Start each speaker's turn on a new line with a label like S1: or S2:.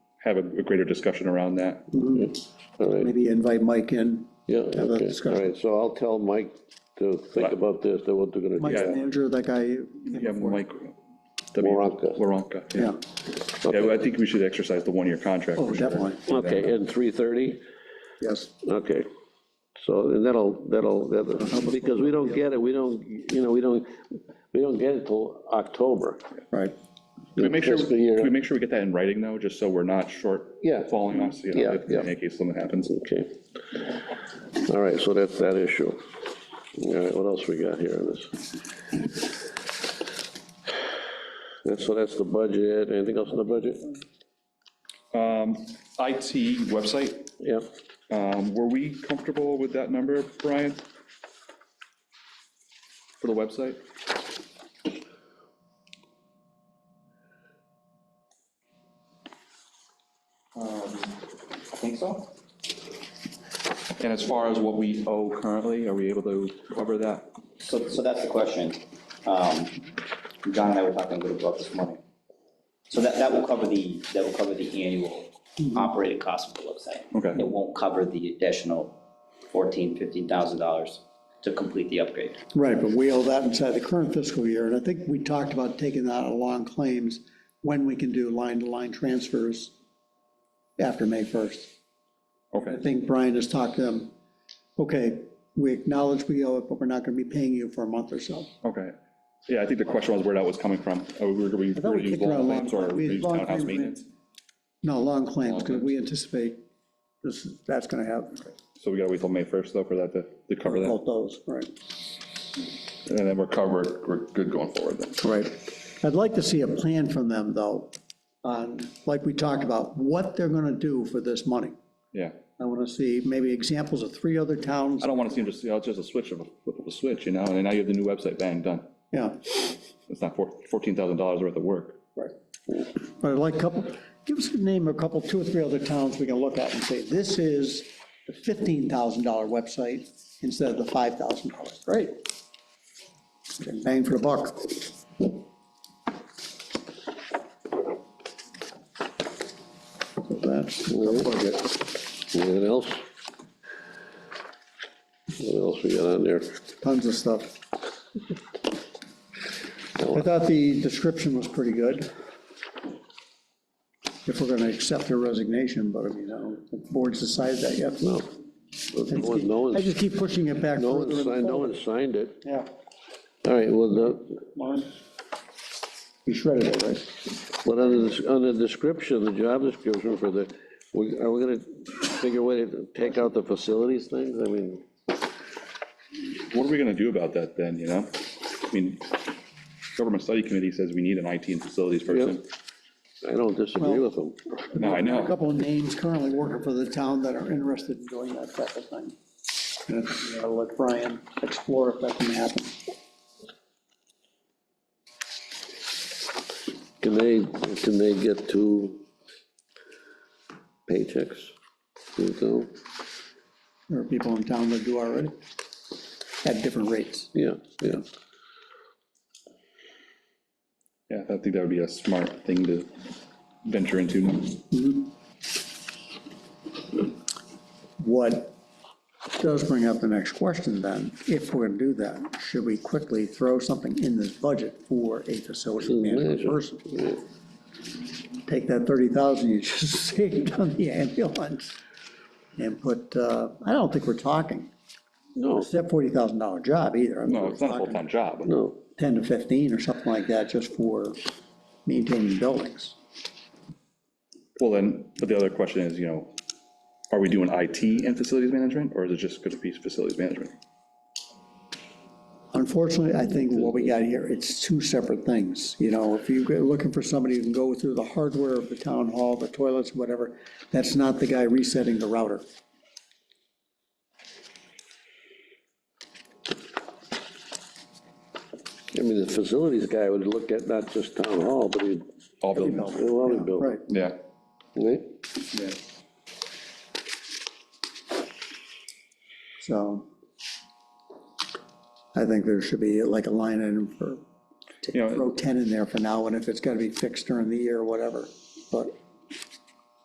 S1: have a a greater discussion around that.
S2: all right,
S3: Maybe invite Mike in,
S2: yeah,
S3: a
S2: okay, all
S3: discussion.
S2: right, so I'll tell Mike to think
S1: Right.
S2: about this, that what they're gonna do.
S3: Mike's the
S1: Yeah.
S3: manager, that guy.
S1: Yeah, Mike. uh, W-
S2: Waronker.
S1: Waronker,
S3: Yeah,
S1: yeah. Yeah, well, I think we should exercise the one-year contract.
S3: oh,
S1: for sure.
S3: definitely,
S2: Okay, and three thirty,
S3: yes.
S2: okay, so, and that'll, that'll, that'll, because we don't get it, we don't, you know, we don't, we don't get it till October.
S3: Right,
S1: Can we make sure,
S2: Fiscal year.
S1: can we make sure we get that in writing, though, just so we're not short
S2: Yeah.
S1: falling us, you know,
S2: Yeah,
S1: if-
S2: yeah.
S1: in any case something happens?
S2: Okay. All right, so that's that issue. All right, what else we got here on this? That's, so that's the budget, anything else in the budget?
S1: IT website,
S2: Yep,
S1: um, were we comfortable with that number, Brian? For the website?
S4: I think so.
S1: And as far as what we owe currently, are we able to cover that?
S4: So, so that's the question. Um, John and I were talking a little about this morning. So that, that will cover the, that will cover the annual operating cost of the website.
S1: Okay.
S4: It won't cover the additional fourteen, fifteen thousand dollars to complete the upgrade.
S3: right, but we owe that inside the current fiscal year, and I think we talked about taking that out of long claims when we can do line-to-line transfers after May 1st.
S1: Okay,
S3: I think Brian has talked to them, okay, we acknowledge we owe it, but we're not gonna be paying you for a month or so.
S1: okay. Yeah, I think the question was where that was coming from. Are we, were we
S3: I thought we
S1: gonna use
S3: kicked around
S1: long
S3: long-
S1: claims or
S3: we-
S1: use
S3: long
S1: townhouse
S3: claims, we-
S1: maintenance?
S3: No, long claims,
S1: Long
S3: because
S1: claims.
S3: we anticipate this, that's gonna happen,
S1: So we gotta wait till May 1st, though, for that to, to cover that?
S3: both those, right.
S1: And then we're covered, we're good going forward then.
S3: Right. I'd like to see a plan from them, though, on, like we talked about, what they're gonna do for this money.
S1: Yeah.
S3: I wanna see maybe examples of three other towns,
S1: I don't wanna seem to, see oh, it's just a switch of, a flip of a switch, you know, and now you have the new website, bang, done.
S3: yeah.
S1: It's not four- $14,000 worth of work.
S3: Right. But I'd like a couple, give us a name, of a couple, two or three other towns we can look at and say, this is the $15,000 website instead of the $5,000. Great. Bang for the buck. So That's the budget.
S2: anything else? What else we got on there?
S3: tons of stuff. I thought the description was pretty good. If we're gonna accept her resignation, but I mean, I don't, the board's decided that yet.
S2: No. No one- no
S3: I
S2: one's,
S3: just keep pushing it back
S2: no one's
S3: further
S2: signed,
S3: and
S2: no
S3: forward.
S2: one's signed it.
S3: Yeah,
S2: All right, well, the,
S3: you shredded it, right?
S2: But on the, on the description, the job description for the, we- are we gonna figure a way to take out the facilities things? I mean,
S1: What are we gonna do about that then, you know? I mean, government study committee says we need an IT and facilities person.
S2: I don't disagree with them.
S1: No, I
S3: A
S1: know.
S3: couple of names currently working for the town that are interested in doing that type of thing. And I think we ought to let Brian explore if that can happen.
S2: Can they, can they get two paychecks? Do you know?
S3: There are people in town that do already at different rates.
S2: Yeah, yeah.
S1: Yeah, I think that would be a smart thing to venture into.
S3: What does bring up the next question then, if we're gonna do that, should we quickly throw something in this budget for a facility manager person?
S2: Yeah.
S3: Take that thirty thousand you just saved on the ambulance and put, uh, I don't think we're talking,
S2: No,
S3: it's a forty thousand dollar job either. I mean,
S1: No,
S3: we're
S1: it's not a
S3: talking
S1: full-time job.
S2: no,
S3: Ten to fifteen or something like that, just for maintaining buildings.
S1: Well, then, but the other question is, you know, are we doing IT and facilities management, or is it just gonna be facilities management?
S3: Unfortunately, I think what we got here, it's two separate things, you know, if you're looking for somebody who can go through the hardware of the town hall, the toilets, whatever, that's not the guy resetting the router.
S2: I mean, the facilities guy would look at not just town hall, but he'd,
S1: All buildings,
S2: he'd want to build,
S3: Right,
S1: yeah.
S2: right?
S3: so I think there should be like a line item for,
S1: You know,
S3: throw ten in there for now, and if it's gotta be fixed during the year, whatever, but